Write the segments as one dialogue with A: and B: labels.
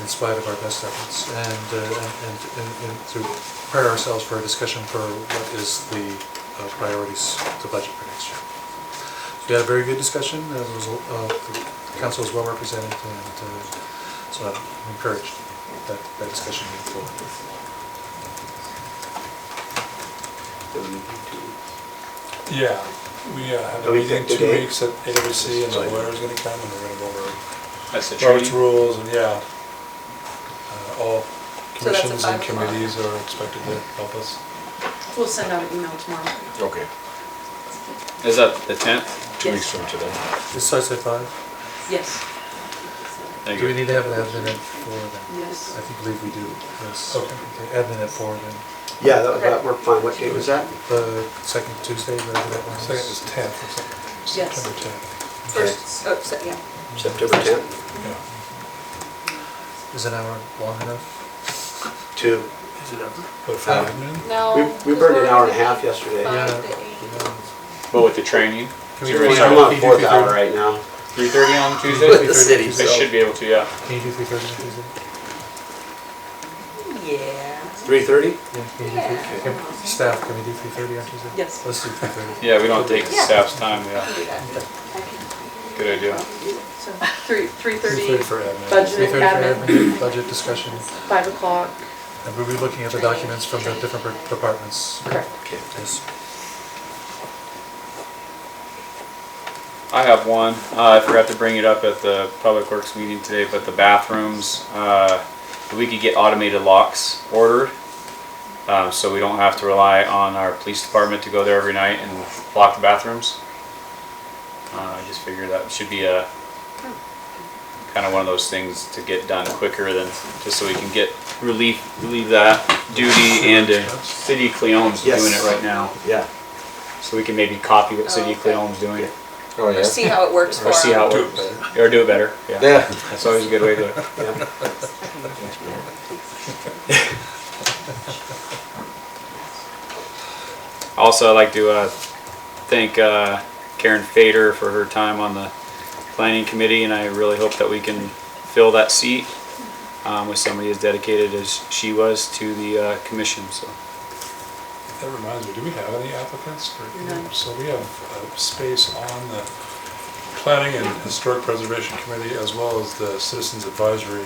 A: in spite of our best efforts, and, uh, and, and, and to prepare ourselves for a discussion for what is the uh, priorities to budget for next year. We had a very good discussion, and it was, uh, the council was well represented, and, uh, so I'm encouraged that, that discussion moved forward.
B: Yeah, we uh, have
C: Oh,
B: a
C: you
B: meeting
C: think
B: two
C: today?
B: weeks at AWC and the
C: Sorry.
B: lawyer's gonna come and we're gonna go over
D: That's the
B: Robert's
D: tree.
B: rules and yeah. Uh, All
E: So that's at
B: commissions and
E: five o'clock.
B: committees are expected to help us.
E: We'll send out an email tomorrow.
C: Okay,
D: Is that the tenth?
C: two weeks
E: Yes.
C: from today.
A: It starts at five.
E: Yes,
D: Thank
A: Do we
D: you.
A: need to have an admin at four then?
E: yes.
A: I think, believe we do, yes.
B: Okay.
A: Admin at four then,
C: Yeah, that,
E: that
C: worked fine. What date was that?
A: the second Tuesday, whatever that one is.
B: Second is tenth, or something.
E: Yes.
B: September tenth.
E: First, oh, so- yeah.
C: September tenth?
B: Yeah,
A: Is an hour long enough?
C: Two.
B: but for
C: Uh,
B: afternoon,
E: Oh.
C: We,
F: No.
C: we burned an hour and a half yesterday.
F: Five
E: Uh,
A: Yeah.
F: to eight.
A: Yeah.
D: But with the training,
A: Can we
D: Sure.
A: do
C: I'm
D: Well,
A: three-
C: on
A: can you do
C: fourth
A: three
C: hour
A: thirty?
C: right now.
D: three thirty on Tuesday.
A: With the
D: I
A: city,
D: should be able to. Yeah.
A: Can you do three thirty on Tuesday?
E: Yeah.
C: Three thirty?
A: Yeah, can you do three- can- Staff, can we do three thirty on Tuesday?
E: Yes.
A: Let's do three thirty.
D: Yeah, we don't take the
F: Yeah.
D: staff's time.
F: I
D: Yeah.
F: can do that.
D: Good idea.
E: So three,
B: three
E: three thirty,
B: for admin.
E: budget admin,
A: Budget discussion,
E: five o'clock,
A: and we'll be looking at the documents from the different per- departments.
E: correct.
C: Okay.
A: Yes.
D: I have one. Uh, I forgot to bring it up at the public works meeting today, but the bathrooms, uh, we could get automated locks ordered. Um, so we don't have to rely on our police department to go there every night and lock the bathrooms. Uh, I just figured that should be a, kind of one of those things to get done quicker than, just so we can get relief, relieve that duty and uh, City of Cleone's doing
C: Yes.
D: it right now.
C: Yeah.
D: So we can maybe copy what City of
F: Okay.
D: Cleone's doing.
C: Oh,
F: Or see how it works for
D: Or see how
F: them.
D: it
B: Do
D: works.
B: it better.
D: Or do it better, yeah.
C: Yeah.
D: That's always a good way to do it.
C: Yeah.
D: Also, I'd like to uh, thank uh, Karen Fader for her time on the planning committee, and I really hope that we can fill that seat um, with somebody as dedicated as she was to the uh, commission, so.
B: That reminds me, do we have any applicants for,
E: None.
B: so we have a space on the Planning and Historic Preservation Committee as well as the Citizens Advisory,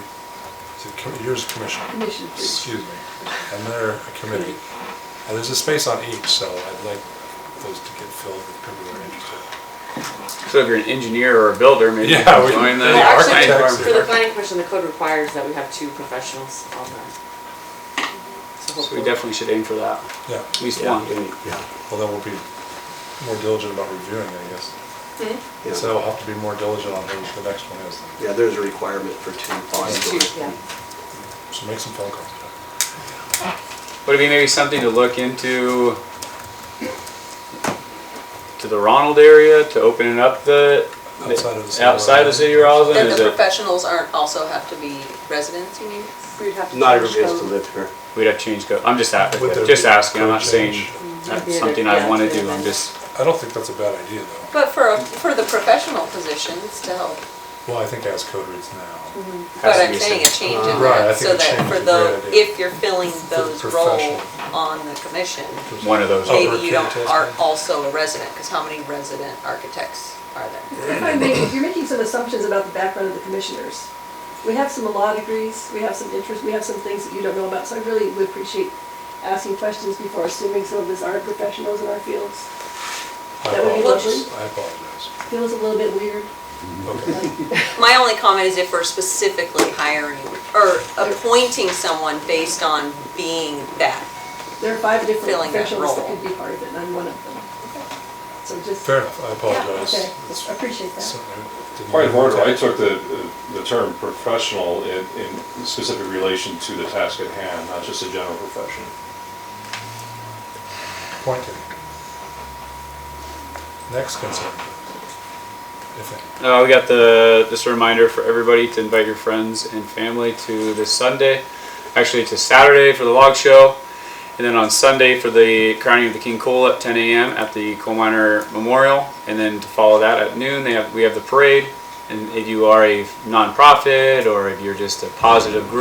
B: is it Com- yours commission,
E: Commission
B: excuse me, and they're a committee. And there's a space on each, so I'd like those to get filled with people that are interested.
D: So if you're an engineer or a builder, maybe you
B: Yeah,
D: can
B: we-
D: join the.
B: Yeah,
G: Well, actually,
B: architects
G: For the planning commission, the code requires that we have two professionals on that. So
D: So we
G: hopefully-
D: definitely should aim for that,
B: Yeah,
D: at least
C: Yeah,
D: one.
C: yeah,
B: well, then we'll be more diligent about reviewing, I guess.
E: Hmm?
C: yeah.
B: So we'll have to be more diligent on who the next one is,
C: Yeah, there's a requirement for two
G: Two,
C: possibilities.
G: yeah.
B: so make some phone calls.
D: Would it be maybe something to look into to the Ronald area, to opening up the?
B: Outside of the city.
D: Outside of the city of Roslyn,
F: Then
D: is
F: the
D: it,
F: professionals aren't, also have to be residents, you mean?
E: We'd have to.
C: Not
E: change
C: everybody has to
E: code.
C: live here.
D: we'd have to change code, I'm just
B: Would there
D: asking, just
B: be
D: asking, I'm
B: code
D: not saying
B: change?
D: that's
G: Yeah,
D: something I
G: yeah,
D: wanna
G: yeah.
D: do, I'm just,
B: I don't think that's a bad idea, though.
F: But for, for the professional positions to help.
B: Well, I think as code reads now.
D: Has
F: But
D: to
F: I'm
D: be
F: saying a
D: said.
F: change in
B: Right, I
F: that,
B: think
F: so
B: a
F: that
B: change
F: for
B: is a great
F: the,
B: idea.
F: if you're filling those roles
B: professional.
F: on the commission,
D: one of those.
B: Oh,
F: maybe you don't,
B: recruit
F: are
B: test.
F: also a resident, because how many resident architects are there?
H: If I may, you're making some assumptions about the background of the commissioners. We have some law degrees, we have some interest, we have some things that you don't know about, so I really would appreciate asking questions before assuming some of us aren't professionals in our fields.
B: I
H: That would be
B: apologize.
H: lovely.
B: I apologize.
H: Feels a little bit weird.
B: Okay.
F: My only comment is if we're specifically hiring or appointing someone based on being that.
H: There are five different
F: Filling that
H: professionals that
F: role.
H: could be part of it, and I'm one of them. So just,
B: Fair enough, I
H: yeah,
B: apologize.
H: okay,
B: It's
H: appreciate that.
B: certainly didn't
I: Point of
B: mean to
I: order, I
B: attack.
I: took the, the term professional in, in specific relation to the task at hand, not just a general profession.
B: Point taken. Next concern. If any.
D: Uh, we got the just a reminder for everybody to invite your friends and family to this Sunday, actually to Saturday for the log show, and then on Sunday for the crowning of the King Coal at 10 a.m. at the Coal Miner Memorial, and then to follow that at noon they have we have the parade, And if you are a nonprofit or if you're just a positive group.